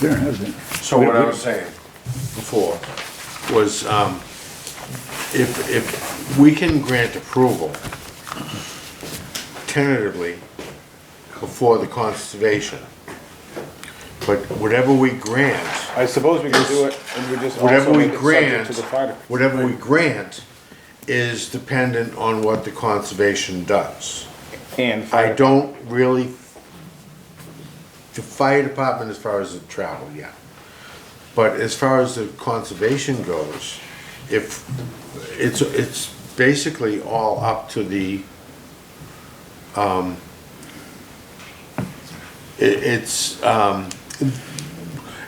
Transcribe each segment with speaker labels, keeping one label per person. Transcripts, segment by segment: Speaker 1: there hasn't.
Speaker 2: So what I was saying before was, um, if, if we can grant approval tentatively before the conservation, but whatever we grant,
Speaker 3: I suppose we can do it and we just
Speaker 2: whatever
Speaker 3: also
Speaker 2: we
Speaker 3: make it subject
Speaker 2: grant,
Speaker 3: to the fire.
Speaker 2: whatever we grant is dependent on what the conservation does.
Speaker 3: And
Speaker 2: I
Speaker 3: fire.
Speaker 2: don't really, the fire department as far as the travel, yeah. But as far as the conservation goes, if, it's, it's basically all up to the, um, it, it's, um,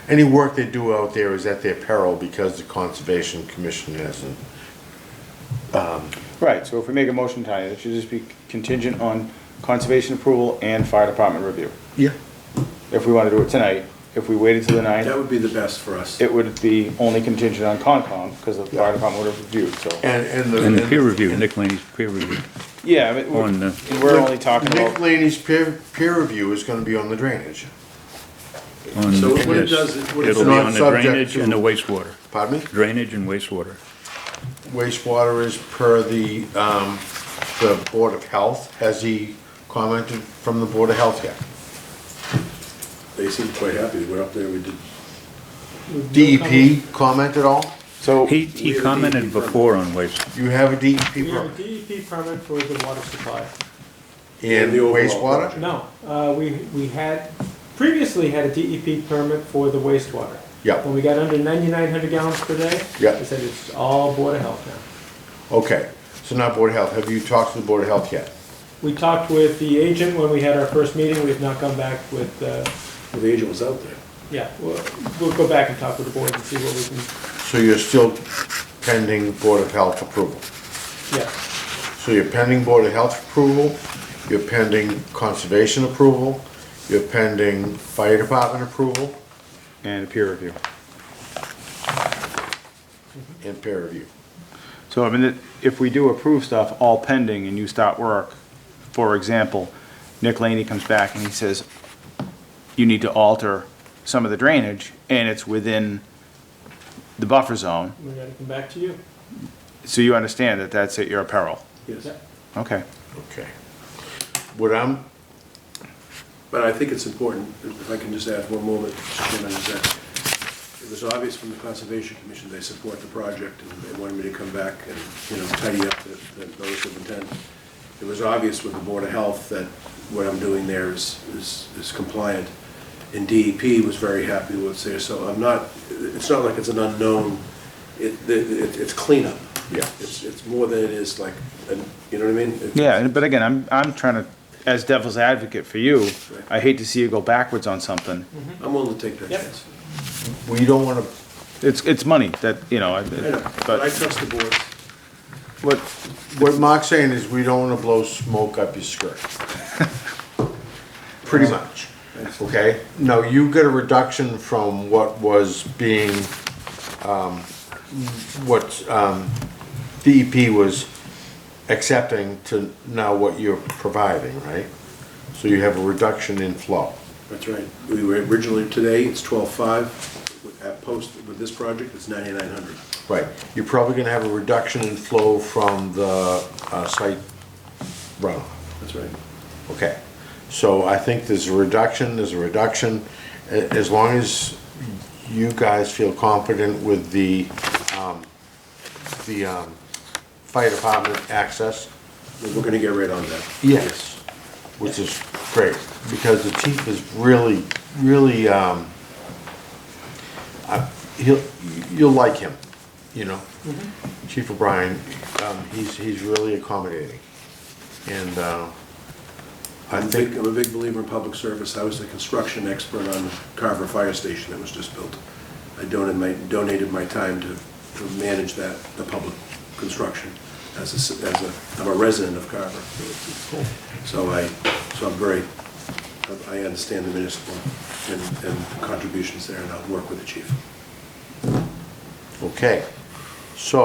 Speaker 2: any work they do out there is at their peril because the conservation commission hasn't.
Speaker 3: Right, so if we make a motion tonight, it should just be contingent on conservation approval and fire department review.
Speaker 2: Yeah.
Speaker 3: If we want to do it tonight, if we waited till the
Speaker 4: That
Speaker 3: ninth,
Speaker 4: would be the best for us.
Speaker 3: it would be only contingent on Concom because the fire department would have reviewed, so.
Speaker 2: And, and the.
Speaker 1: And the peer review, Nick Laney's peer review.
Speaker 3: Yeah, but
Speaker 1: On
Speaker 3: we're
Speaker 1: the-
Speaker 3: and we're only talking
Speaker 2: Nick
Speaker 3: about,
Speaker 2: Laney's peer, peer review is gonna be on the drainage.
Speaker 1: on-
Speaker 4: So what
Speaker 1: yes.
Speaker 4: it does is- what it
Speaker 1: It'll
Speaker 2: says-
Speaker 1: be on the
Speaker 2: Not subject
Speaker 1: drainage and
Speaker 2: to-
Speaker 1: the wastewater,
Speaker 2: Pardon me?
Speaker 1: drainage and wastewater.
Speaker 2: Wastewater is per the, um, the Board of Health. Has he commented from the Board of Health yet?
Speaker 4: They seemed quite happy. We're up there, we did.
Speaker 2: DEP E comment at all?
Speaker 3: so,
Speaker 1: He, he commented before on waste,
Speaker 2: You have a E DEP
Speaker 5: We have
Speaker 2: permit
Speaker 5: a E DEP permit for the water supply.
Speaker 2: in
Speaker 4: The overall
Speaker 2: wastewater?
Speaker 4: project.
Speaker 5: No, uh, we, we had, previously had a DEP permit for the wastewater.
Speaker 2: Yeah.
Speaker 5: When we got under ninety-nine hundred gallons per day.
Speaker 2: Yeah.
Speaker 5: They said it's all Board of Health now.
Speaker 2: Okay, so not Board of Health. Have you talked to the Board of Health yet?
Speaker 5: We talked with the agent when we had our first meeting, we've not come back with, uh,
Speaker 4: Well, the agent was out there.
Speaker 5: yeah, we'll, we'll go back and talk with the board and see what we can,
Speaker 2: So you're still pending Board of Health approval?
Speaker 5: yeah.
Speaker 2: So you're pending Board of Health approval, you're pending Conservation approval, you're pending Fire Department approval,
Speaker 3: and peer review.
Speaker 2: and peer review.
Speaker 3: So I mean, it- if we do approve stuff all pending and you start work, for example, Nick Laney comes back and he says, you need to alter some of the drainage and it's within the buffer zone,
Speaker 5: We gotta come back to you.
Speaker 3: so you understand that that's at your peril.
Speaker 4: Yes.
Speaker 5: Yeah.
Speaker 3: Okay.
Speaker 2: Okay. What I'm,
Speaker 4: But I think it's important, if I can just add one moment, Mr. Chairman, is that it was obvious from the Conservation Commission, they support the project, and they wanted me to come back and, you know, tidy up the, the notice of intent. It was obvious with the Board of Health that what I'm doing there is, is is compliant. And DEP was very happy with what's there, so I'm not, it's not like it's an unknown, it, it, it's cleanup.
Speaker 2: Yeah.
Speaker 4: It's, it's more than it is like, an- you know what I mean? It's-
Speaker 3: Yeah, and- but again, I'm, I'm trying to, as devil's advocate for you, I hate to see you go backwards on something.
Speaker 4: I'm willing to take that
Speaker 5: Yep.
Speaker 4: chance.
Speaker 2: we don't wanna,
Speaker 3: It's, it's money that, you know, I-
Speaker 4: I know, but I
Speaker 3: but
Speaker 4: trust the board.
Speaker 2: what, what Mark's saying is we don't wanna blow smoke up your skirt. Pretty much, okay? Now, you get a reduction from what was being, um, what, um, DEP was accepting to now what you're providing, right? So you have a reduction in flow.
Speaker 4: That's right. We were originally, today, it's twelve-five. At post, with this project, it's ninety-nine hundred.
Speaker 2: Right, you're probably gonna have a reduction in flow from the, uh, site runoff.
Speaker 4: That's right.
Speaker 2: Okay, so I think there's a reduction, there's a reduction, A- as long as you guys feel confident with the, um, the, um, fire department access.
Speaker 4: We're gonna get right on that.
Speaker 2: Yes. Which is great, because the chief is really, really, um, I- he'll, you'll like him, you know? Chief O'Brien, um, he's, he's really accommodating, and, uh, I
Speaker 4: I'm a
Speaker 2: think.
Speaker 4: big, I'm a big believer in public service. I was the construction expert on Carver Fire Station that was just built. I donated my, donated my time to, to manage that, the public construction as a, ci- as a, I'm a resident of Carver. So I, so I'm very, I I understand the municipal and, and contributions there, and I'll work with the chief.
Speaker 2: Okay, so